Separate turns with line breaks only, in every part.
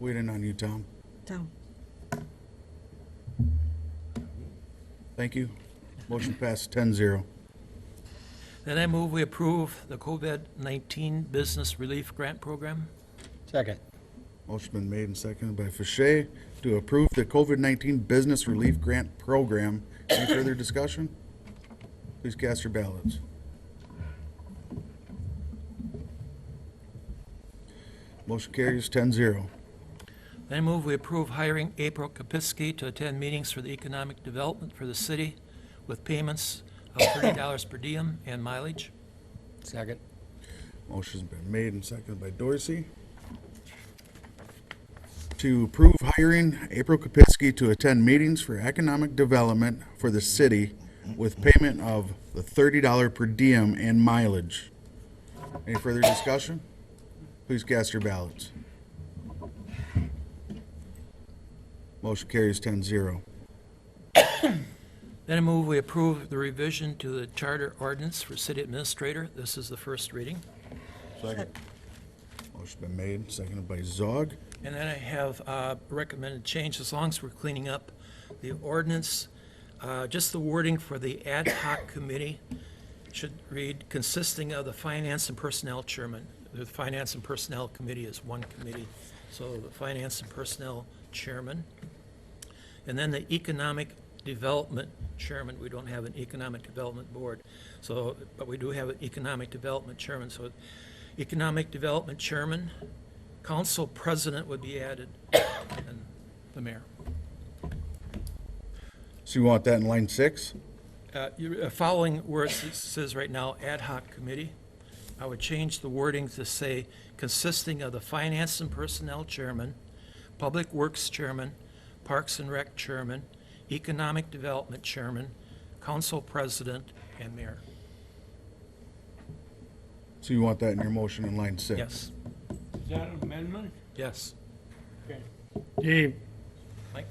Waiting on you, Tom.
Tom?
Thank you. Motion passed 10-0.
Then I move we approve the COVID-19 Business Relief Grant Program.
Second.
Motion been made and seconded by Fache to approve the COVID-19 Business Relief Grant Program. Any further discussion? Please cast your ballots. Motion carries 10-0.
Then I move we approve hiring April Kapiski to attend meetings for the economic development for the city with payments of $30 per diem and mileage.
Second.
Motion's been made and seconded by Dorsey to approve hiring April Kapinski to attend meetings for economic development for the city with payment of the thirty dollar per diem and mileage. Any further discussion? Please cast your ballots. Motion carries 10-0.
Then I move we approve the revision to the charter ordinance for city administrator. This is the first reading.
Second. Motion's been made, seconded by Zog.
And then I have uh, recommended change, as long as we're cleaning up the ordinance, uh, just the wording for the ad hoc committee should read consisting of the finance and personnel chairman. The finance and personnel committee is one committee, so the finance and personnel chairman. And then the economic development chairman, we don't have an economic development board, so, but we do have an economic development chairman, so economic development chairman, council president would be added, and the mayor.
So you want that in line six?
Uh, you- uh, Following where it s- says right now, ad hoc committee, I would change the wording to say consisting of the finance and personnel chairman, public works chairman, parks and rec chairman, economic development chairman, council president, and mayor.
So you want that in your motion in line six?
Yes,
Is that an amendment?
yes.
Dave,
Mike?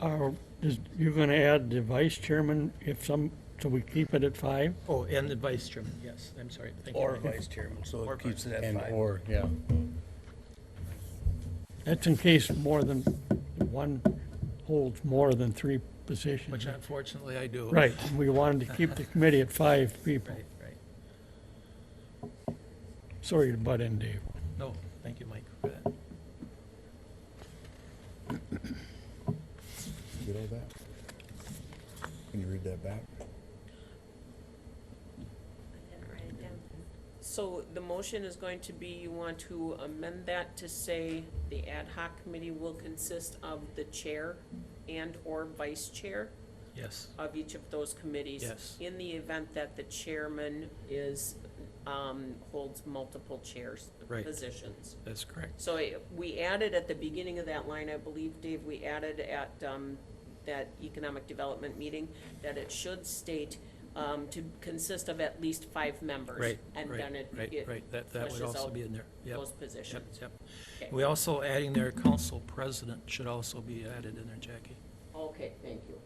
are, is, you're gonna add the vice chairman if some, so we keep it at five?
Oh, and the vice chairman, yes, I'm sorry, thank you.
Or vice chairman, so
Or
it keeps it at
And
five.
or, yeah.
That's in case more than, one holds more than three positions.
Which unfortunately I do.
Right, and we wanted to keep the committee at five people.
Right, right.
Sorry to butt in, Dave.
No, thank you, Mike, for that.
Get all that? Can you read that back?
So the motion is going to be, you want to amend that to say the ad hoc committee will consist of the chair and/or vice chair
Yes,
of each of those committees?
Yes.
In the event that the chairman is, um, holds multiple chairs,
Right.
positions.
that's correct.
So I- we added at the beginning of that line, I believe, Dave, we added at um, that economic development meeting, that it should state um, to consist of at least five members.
Right,
And then
right,
it
right,
it
right, that, that would
flushes
also
out
be in there, yep.
those
Yep,
positions.
yep.
Okay.
We also adding there, council president should also be added in there, Jackie.
Okay, thank you.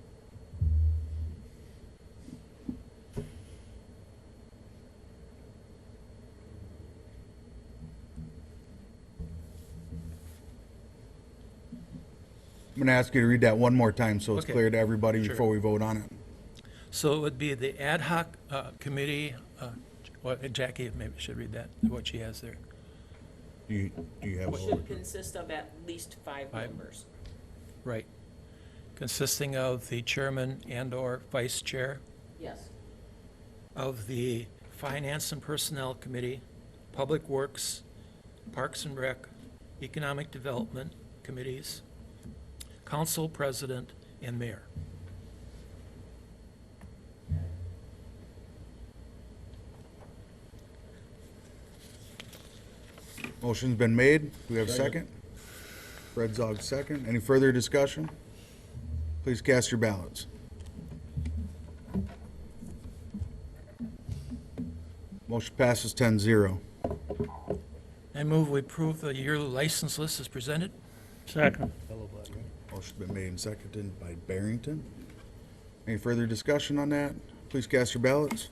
I'm gonna ask you to read that one more time so it's
Okay.
clear to everybody
Sure.
before we vote on it.
So it would be the ad hoc uh, committee, uh, well, Jackie maybe should read that, what she has there.
Do you, do you have, all-
Should consist of at least five
Five.
members.
Right. Consisting of the chairman and/or vice chair
Yes.
of the Finance and Personnel Committee, Public Works, Parks and Rec, Economic Development Committees, Council President, and Mayor.
motion's been made. Do we have a second? Fred Zog, second. Any further discussion? Please cast your ballots. Motion passes 10-0.
I move we approve the yearly license list as presented.
Second,
Motion's been made and seconded by Barrington. Any further discussion on that? Please cast your ballots.